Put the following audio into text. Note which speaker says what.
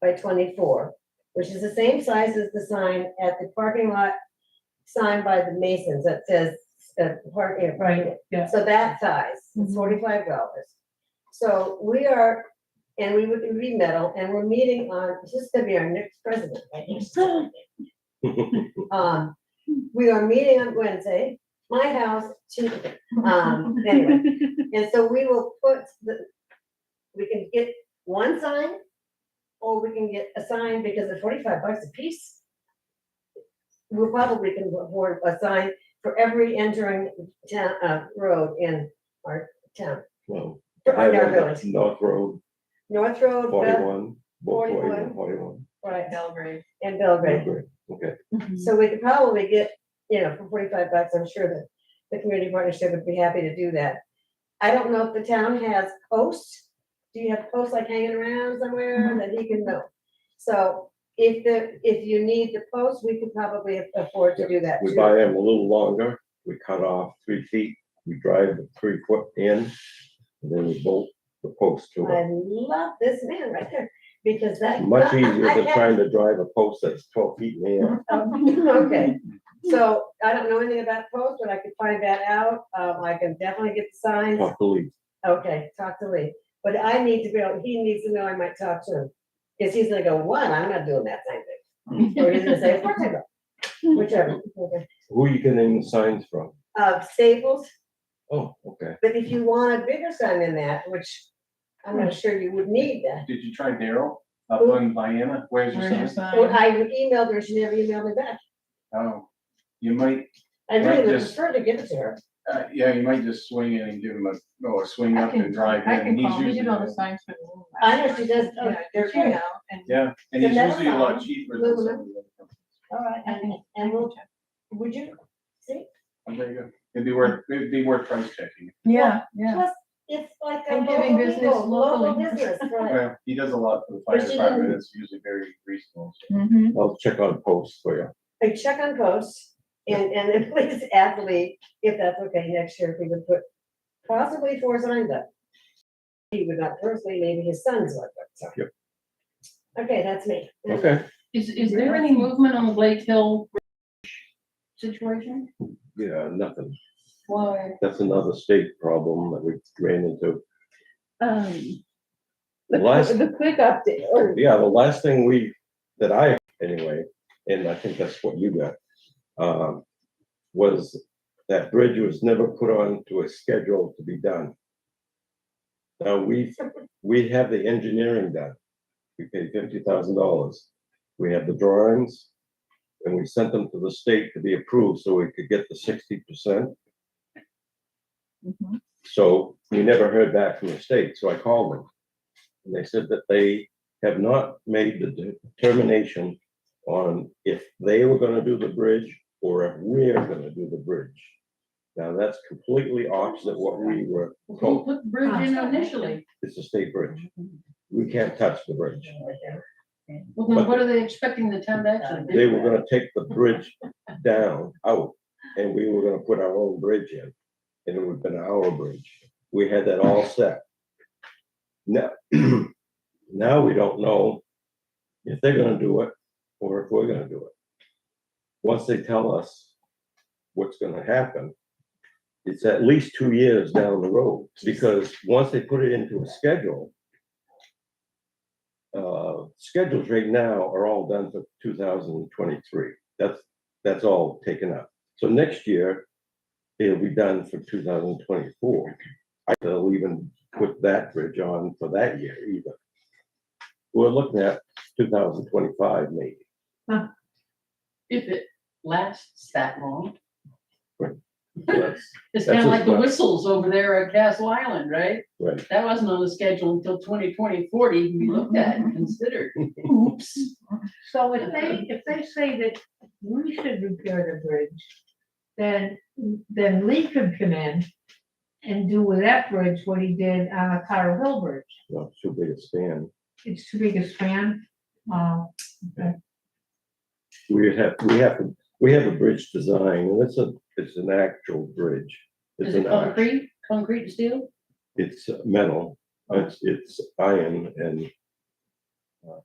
Speaker 1: by twenty-four, which is the same size as the sign at the parking lot signed by the Masons that says, uh, parking,
Speaker 2: Right, yeah.
Speaker 1: So that size,
Speaker 2: Mhm.
Speaker 1: it's forty-five dollars. So we are, and we would be metal, and we're meeting on, this is gonna be our next president, right? next president. Um, we are meeting on Wednesday, my house, Tuesday, um, anyway. And so we will put the, we can get one sign, or we can get a sign because of forty-five bucks a piece. We probably can afford a sign for every entering town, uh, road in our town,
Speaker 3: Well,
Speaker 1: for our town
Speaker 3: Highway,
Speaker 1: village.
Speaker 3: North Road,
Speaker 1: North Road, Bel-
Speaker 3: forty-one, both
Speaker 1: 41.
Speaker 3: forty-one, forty-one.
Speaker 1: right,
Speaker 4: Belgrade.
Speaker 1: and Belgrade.
Speaker 3: Belgrade, Okay,
Speaker 1: So we could probably get, you know, for forty-five bucks, I'm sure that the community partnership would be happy to do that. I don't know if the town has posts. Do you have posts like hanging around
Speaker 3: Mm-hmm.
Speaker 1: somewhere that he can know? So if the, if you need the post, we could probably afford to do that
Speaker 3: we
Speaker 1: too.
Speaker 3: buy them a little longer, we cut off three feet, we drive the three foot in, and then we bolt the post to
Speaker 1: I
Speaker 3: it.
Speaker 1: love this man right there, because that.
Speaker 3: Much easier
Speaker 1: I
Speaker 3: than
Speaker 1: had-
Speaker 3: trying to drive a post that's twelve feet in the air.
Speaker 1: Okay, so I don't know anything about posts, but I could find that out. Um, I can definitely get the signs.
Speaker 3: Talk to Lee.
Speaker 1: Okay, talk to Lee, but I need to be able, he needs to know I might talk to him, cause he's gonna go, one, I'm not doing that same thing. Or he's gonna say, of course I will," whichever, okay.
Speaker 3: Who are you getting the signs from?
Speaker 1: uh, Staples,
Speaker 3: Oh, okay.
Speaker 1: but if you want a bigger sign than that, which I'm not sure you would need that.
Speaker 5: Did you try Daryl up on Vienna? Where's your son?
Speaker 1: Well, I emailed her, she never emailed me back,
Speaker 5: Oh, you might,
Speaker 1: I really
Speaker 5: Right,
Speaker 1: would
Speaker 5: just-
Speaker 1: prefer to give it to her,
Speaker 5: uh, yeah, you might just swing in and give him a, oh, swing
Speaker 4: I
Speaker 5: up and
Speaker 4: can,
Speaker 5: drive
Speaker 4: I
Speaker 5: in.
Speaker 4: can
Speaker 5: He's
Speaker 4: call, we
Speaker 5: usually
Speaker 4: did all the signs for the. little
Speaker 1: I know
Speaker 4: last time.
Speaker 1: she does, oh,
Speaker 4: Yeah,
Speaker 1: they're
Speaker 4: but you
Speaker 1: great.
Speaker 4: know, and.
Speaker 5: Yeah, and
Speaker 1: Then
Speaker 5: he's
Speaker 1: that's
Speaker 5: usually a lot
Speaker 1: fine.
Speaker 5: cheaper than some of
Speaker 1: Aluminum.
Speaker 5: the other companies.
Speaker 1: alright,
Speaker 4: I
Speaker 1: and,
Speaker 4: can- I
Speaker 1: and
Speaker 4: can
Speaker 1: we'll,
Speaker 4: check.
Speaker 1: would you, see?
Speaker 5: Oh, There you go. It'd be worth, it'd be worth price checking.
Speaker 2: Yeah, yeah.
Speaker 1: Plus, it's like a
Speaker 2: And giving
Speaker 1: local
Speaker 2: business
Speaker 1: people, local
Speaker 2: locally.
Speaker 1: business, right?
Speaker 5: Well, he does a lot for the
Speaker 1: But
Speaker 5: fire
Speaker 1: she
Speaker 5: department.
Speaker 1: didn't-
Speaker 5: It's usually very reasonable.
Speaker 2: Mhm.
Speaker 3: I'll check on posts for you.
Speaker 1: I check on posts and, and then please add the lead, if that's okay, next year, if we would put possibly four signs up. He would not personally, maybe his sons would, but so.
Speaker 3: Yep.
Speaker 1: Okay, that's me.
Speaker 3: Okay,
Speaker 6: Is, is there any movement on the Blake Hill situation?
Speaker 3: yeah, nothing.
Speaker 4: Why?
Speaker 3: That's another state problem that we ran into.
Speaker 2: Um, The,
Speaker 3: Last-
Speaker 2: qu- the quick update, or
Speaker 3: Oh, Yeah, the last thing we, that I, anyway, and I think that's what you got, um, was that bridge was never put on to a schedule to be done. Now, we, we have the engineering done. We paid fifty thousand dollars. We have the drawings, and we sent them to the state to be approved so we could get the sixty percent.
Speaker 2: Mhm.
Speaker 3: So we never heard back from the state, so I called them. And they said that they have not made the determination on if they were gonna do the bridge or if we're gonna do the bridge. Now, that's completely opposite what we were
Speaker 6: Who
Speaker 3: told.
Speaker 6: put the bridge in initially?
Speaker 3: It's a state bridge. We can't touch the bridge.
Speaker 6: Well, then what are they expecting the town to actually do?
Speaker 3: They were gonna take the bridge down, out, and we were gonna put our own bridge in. And it would have been our bridge. We had that all set. Now, now we don't know if they're gonna do it or if we're gonna do it. Once they tell us what's gonna happen, it's at least two years down the road, because once they put it into a schedule, uh, schedules right now are all done for two thousand and twenty-three. That's, that's all taken up. So next year, it'll be done for two thousand and twenty-four. I will even put that bridge on for that year either. We're looking at two thousand twenty-five maybe.
Speaker 6: If it lasts that long.
Speaker 3: So that's- That's
Speaker 6: It's kind of like the
Speaker 3: what-
Speaker 6: whistles over there at Castle Island, right?
Speaker 3: Right.
Speaker 6: That wasn't on the schedule until 2020, 40, even be looked at and considered. Oops.
Speaker 7: So if they, if they say that we should repair the bridge, then, then Lee could come in and do with that bridge what he did on the Carter Hill Bridge.
Speaker 3: Well, it's too big a span.
Speaker 7: It's too big a span. Uh,
Speaker 3: We have, we have, we have a bridge design, and it's a, it's an actual bridge. It's
Speaker 6: Is it
Speaker 3: an arch.
Speaker 6: concrete, concrete and steel?
Speaker 3: It's metal, it's, it's iron and